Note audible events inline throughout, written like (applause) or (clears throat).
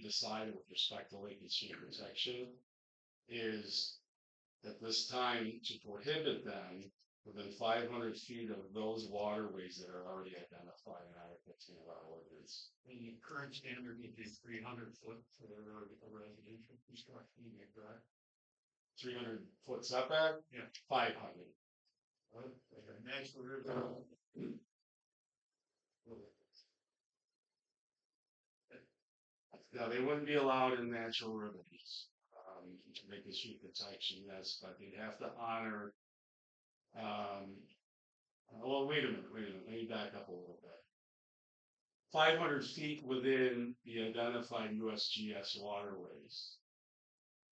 decided with respect to Lake and Stream protection is at this time to prohibit them within five hundred feet of those waterways that are already identified in Article fifteen of our ordinance. The current standard would be three hundred foot for the road for residential construction, you right? Three hundred foot setback? Yeah. Five hundred. And that's where it (clears throat) goes. No, they wouldn't be allowed in natural remedies. Um, to make this sheep protection, yes, but they'd have to honor. Um, uh, well, wait a minute, wait a minute, let me back up a little bit. Five hundred feet within the identified USGS waterways.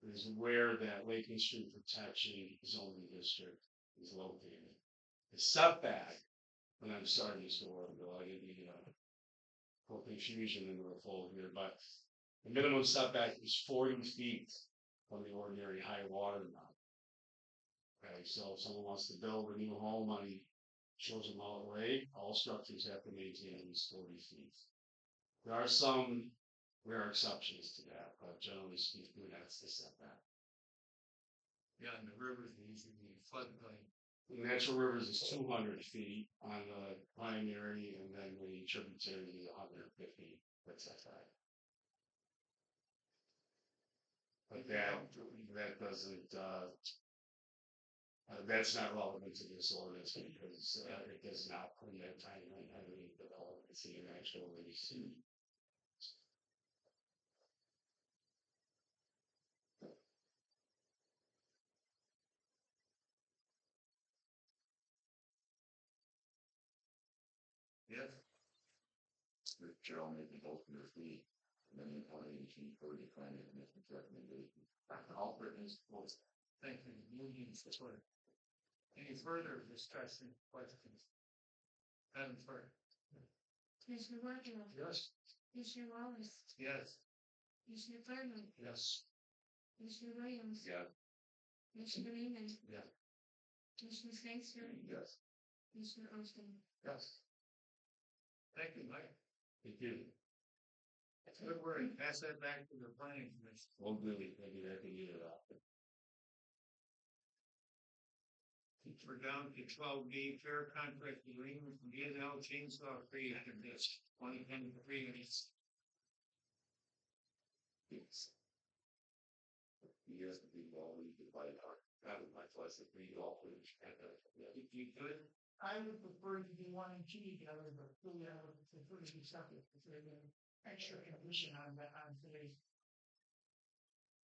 Is where that Lake and Stream Protection Zoning District is located. The setback, and I'm sorry, Mr. Warrenville, I didn't mean to for confusion in the fold here, but the minimum setback is forty feet from the ordinary high water mark. Okay, so if someone wants to build a new home on a chosen mile away, all structures have to maintain at least forty feet. There are some rare exceptions to that, but generally speaking, that's the setback. Yeah, and the rivers usually floodplain. Natural rivers is two hundred feet on the primary, and then the tributary is hundred fifty, that's that side. But that, that doesn't, uh, uh, that's not relevant to this ordinance because, uh, it does not permit tiny, tiny developments in natural rivers. Yes. Gerald made the vote for fee, and then the county chief for declining the commission's recommendation. All witness votes. Thank you, unions, that's what. Any further discussion, questions? Madam Clerk? Commissioner Warfield, Yes. Commissioner Wallace, Yes. Commissioner Cardinal, Yes. Commissioner Williams, Yeah. Commissioner Raymond. Yeah. Commissioner Sangster, Yes. Commissioner Olson. Yes. Thank you, Mike. Thank you. Good work. Pass that back to the planning commission. Well, really, thank you, that can get it up. We're down to twelve B, fair contract agreement from B and L Chainsaw Creator, this twenty ten agreements. Yes. You guys can be all we can buy our, that is my choice, if we all would have that. If you could. I would prefer to do one and two together, but we have the first and second, if there's an extra condition on that, on today's.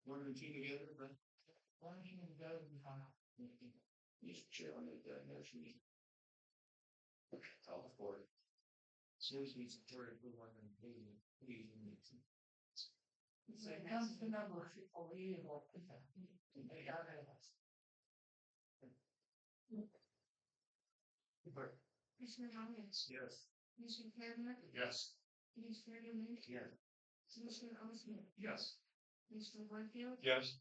One and two together, but. One and two together, we found out. Mr. Chairman, the motion. All for it. Seriously, support if we want to do it, please. So it comes to number people, we will put that, they got it. Commissioner Wallace, Yes. Commissioner Cardinal, Yes. Commissioner Raymond, Yes. Commissioner Olson, Yes. Commissioner Warfield, Yes.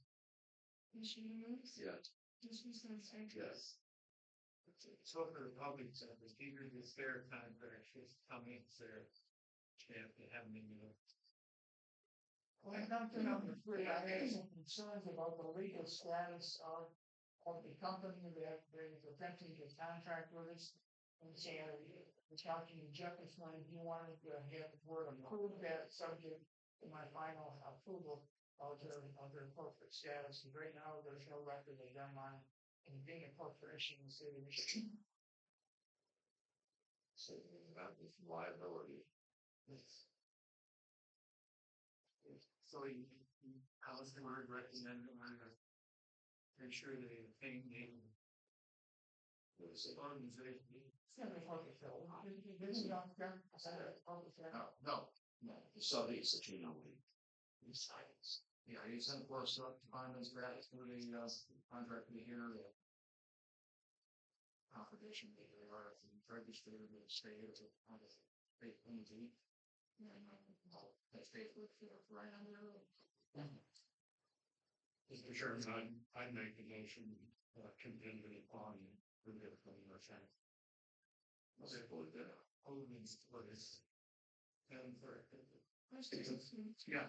Commissioner Williams, Yeah. Commissioner Sangster. Yes. So for the public service, even if it's their time, but it's just coming, it's their chance to have me, you know. When it comes to number three, I have some concerns about the legal status of, of the company that is attempting to contract with us. And so uh, the county Jefferson, if you wanted to have the board approve that subject to my final approval of their, of their corporate status. And right now, there's no record of them on any being a corporation in the city (laughs) of Michigan. So about this liability. So you, you- how's the word representative, I'm gonna make sure they paying the organization. It's not a corporate bill. This is not, that's not a corporate bill. No, no, No, so it's a two no way. Besides, yeah, you sent for us up to find those grants for the, uh, contract we hear that. Confirmation that they are registered in the state of, on the state P D. That state would feel right on the road. Mr. Chairman, I, I make the motion, uh, contingent upon the from your side. Was it for the, only for this? And for, Mm. Commissioner Olson, yeah.